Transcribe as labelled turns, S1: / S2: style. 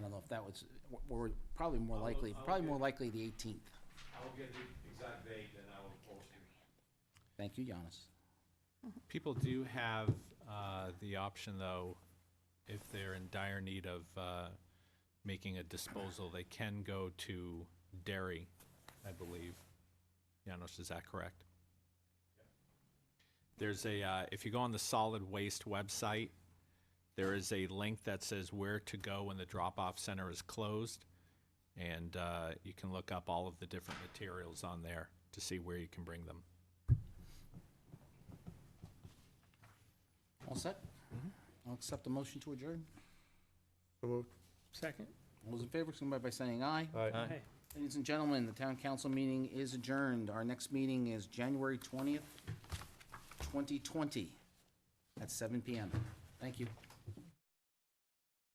S1: don't know if that was, we're probably more
S2: I'll-
S1: likely,
S2: I'll
S1: probably
S2: get-
S1: more likely the 18th.
S2: I will get the exact date and I will post it.
S1: Thank you, Giannis.
S3: People do have uh, the option, though, if they're in dire need of uh, making a disposal, they can go to dairy, I believe. Janos, is that correct? There's a, uh, if you go on the solid waste website, there is a link that says where to go when the drop-off center is closed. And uh, you can look up all of the different materials on there to see where you can bring them.
S1: All set? I'll accept the motion to adjourn.
S4: So moved.
S5: Second?
S1: All those in favor, signify by saying aye.
S4: Aye.
S5: Hey.
S1: Ladies and gentlemen, the town council meeting is adjourned. Our next meeting is January 20th, 2020, at 7 PM. Thank you.